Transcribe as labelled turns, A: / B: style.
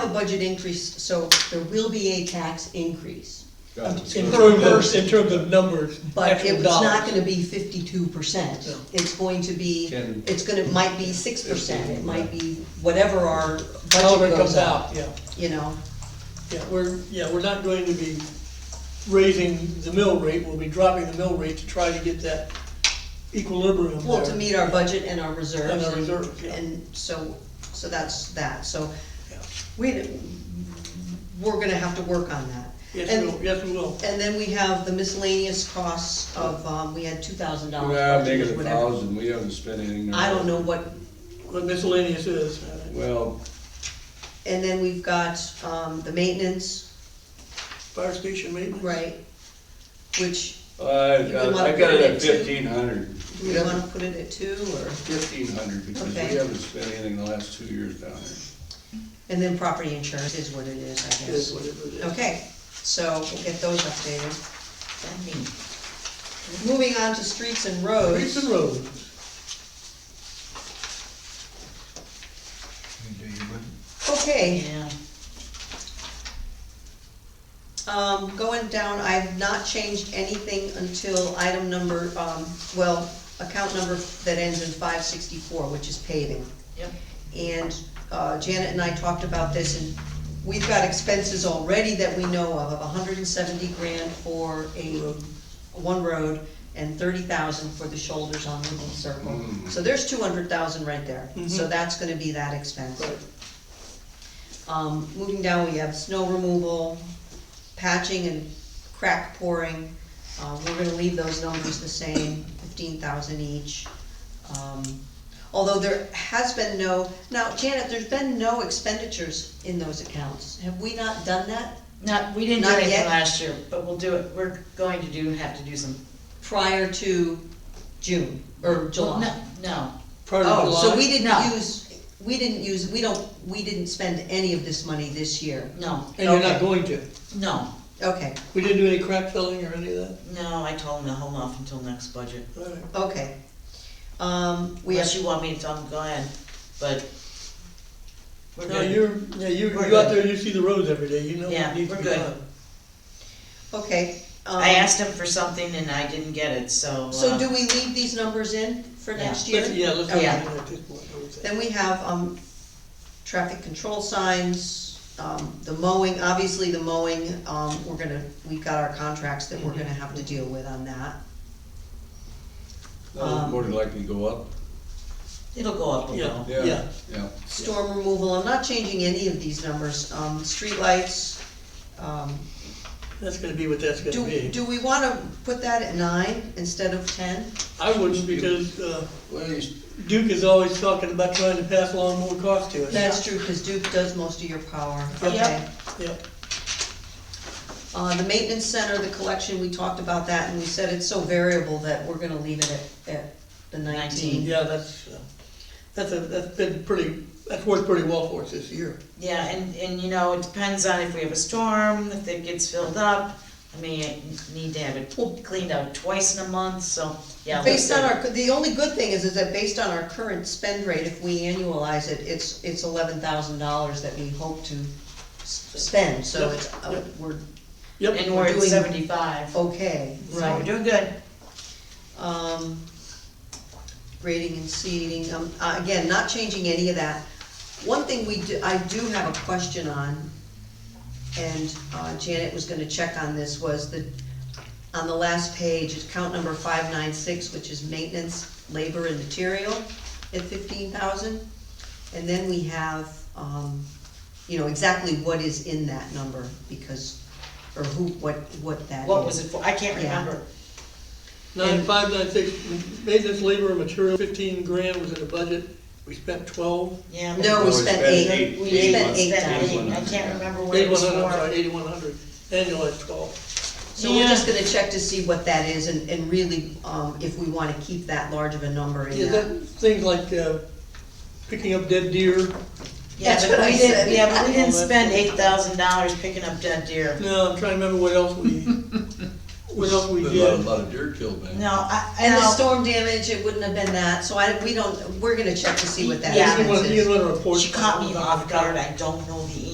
A: budget increase, so there will be a tax increase.
B: Got it.
A: In
C: In terms of,
A: person.
C: in terms of numbers,
A: But
C: actual
A: it was not
C: dollars.
A: gonna be fifty-two percent.
C: No.
A: It's going to be,
B: Ten.
A: it's gonna, it might be six percent, it might be whatever our
C: However it
A: budget
C: comes
A: goes up,
C: out, yeah,
A: you know?
C: yeah, we're, yeah, we're not going to be raising the mill rate, we'll be dropping the mill rate to try to get that equilibrium there.
A: Well, to meet our budget and our reserves.
C: And our reserves, yeah.
A: And so, so that's that, so
C: Yeah.
A: we, we're gonna have to work on that.
C: Yes,
A: And-
C: we will, yes, we will,
A: And then we have the miscellaneous costs of, um, we had two thousand dollars.
B: Nah, make it a thousand, we haven't spent anything.
A: I don't know what,
C: what miscellaneous is, uh,
B: Well,
A: and then we've got, um, the maintenance,
C: fire station maintenance.
A: right? Which,
B: I,
A: You would
B: I
A: wanna
B: I got it
A: put it
B: at
A: in two.
B: fifteen hundred.
A: do we wanna put it at two, or,
B: Fifteen hundred, because we
A: Okay.
B: haven't spent anything the last two years down there.
A: and then property insurance is what it is, I
C: Is
A: guess.
C: what it is.
A: Okay, so we'll get those updated. Moving on to streets and
C: Hmm. Streets and
A: roads,
C: roads,
A: okay,
D: Yeah,
A: Um, going down, I've not changed anything until item number, um, well, account number that ends in five sixty-four, which is paving.
D: yep,
A: And, uh, Janet and I talked about this, and we've got expenses already that we know of, of hundred and seventy grand for a, one road, and thirty thousand for the shoulders on Lincoln Circle.
B: Mm.
A: So there's two hundred thousand right there, so
C: Mhm.
A: that's gonna be that expense.
C: right,
A: Um, moving down, we have snow removal, patching and crack pouring. Uh, we're gonna leave those numbers the same, fifteen thousand each. Um, Although there has been no, now Janet, there's been no expenditures in those accounts. Have we not done that
D: not, we didn't do
A: Not
D: anything
A: yet?
D: last year, but we'll do it, we're going to do, have to do some.
A: prior to June or July?
D: No, no,
C: prior to
A: Oh, so we
C: July,
A: didn't
D: No.
A: use, we didn't use, we don't, we didn't spend any of this money this year.
D: no,
C: and you're not
A: okay.
C: going to,
D: no,
A: Okay,
C: we didn't do any crack filling or any of that,
D: no, I told him to hold off until next budget.
C: all right.
A: okay. Um, we have.
D: Unless you want me to tell him, go ahead, but. We're
C: No,
D: good,
C: you're, yeah, you, you
D: We're
C: out
D: good.
C: there, you see the roads every day, you know
D: Yeah,
C: what needs to
D: we're
C: be
D: good.
C: done.
A: Okay. um,
D: I asked him for something and I didn't get it, so.
A: So
D: uh,
A: do we leave these numbers in for
D: Yeah.
A: next
C: Let's-
A: year?
C: Yeah, let's.
D: Yeah.
C: leave it at this point, I would say.
A: Then we have, um, traffic control signs, um, the mowing, obviously the mowing, um, we're gonna, we've got our contracts that we're gonna have to deal with on that.
B: That'll
A: Um,
B: more than likely go up,
D: It'll go up a
C: Yeah,
D: little.
B: yeah,
C: yeah,
B: yeah.
A: Storm removal, I'm not changing any of these numbers, um, streetlights, um,
C: that's gonna be what that's gonna
A: do,
C: be.
A: do we wanna put that at nine instead of ten?
C: I wouldn't because uh,
B: Well, you-
C: Duke is always talking about trying to pass along more cost to us.
A: That's true, cause Duke does most of your power,
C: Yep.
A: okay?
C: Yep,
A: Uh, the maintenance center, the collection, we talked about that, and we said it's so variable that we're gonna leave it at, at the nineteen.
C: yeah, that's, uh, that's, a- that's been pretty, that's worked pretty well for us this year.
D: Yeah, and, and you know, it depends on if we have a storm, if it gets filled up, I mean, I need to have it cleaned out twice in a month, so, yeah.
A: Based
D: we'll
A: on
D: do it.
A: our, the only good thing is, is that based on our current spend rate, if we annualize it, it's, it's eleven thousand dollars that we hope to s- spend, so
C: Yep,
A: it's, uh,
C: yep.
A: we're
D: And
C: Yep,
D: we're at
A: doing- Oh,
D: seventy-five, so
A: okay.
D: we're doing good.
A: Um, grading and seeding, um, uh, again, not changing any of that. One thing we do, I do have a question on, and uh, Janet was gonna check on this, was that on the last page, it's count number five nine six, which is maintenance, labor and material at fifteen thousand. And then we have, um, you know, exactly what is in that number, because, or who, what, what that is.
D: What was it for? I can't
A: Yeah.
D: remember.
C: nine, five, nine, six, maintenance, labor, and material, fifteen grand was in the budget, we spent twelve.
D: Yeah. but-
A: No, we
B: we
A: spent
B: spent
A: eight,
B: eight.
A: we
B: Eight
A: spent
B: months.
A: eight
D: Spent
A: thousand.
B: thousand.
D: I can't remember what it
C: Eighty-one
D: was
C: hundred, I'm sorry,
D: for.
C: eighty-one hundred, annualized twelve.
A: So we're just gonna check to see what that is and, and really, um, if we wanna keep that large of a number
C: Yeah,
A: in that.
C: that, things like uh, picking up dead deer,
D: Yeah,
A: That's what
D: but
A: I
D: we didn't,
A: said.
D: yeah, but we didn't
C: Well, that's-
D: spend eight thousand dollars picking up dead deer.
C: no, I'm trying to remember what else we, what else we
B: Been A lot, a
C: did.
B: lot of deer killed, man.
D: No, I,
A: Mm. And the
D: no,
A: storm damage, it wouldn't have been that, so I, we don't, we're gonna check to see what that
D: Yeah.
C: You
A: expense
C: want,
A: is.
C: you want a report.
D: she caught me off guard. I don't know the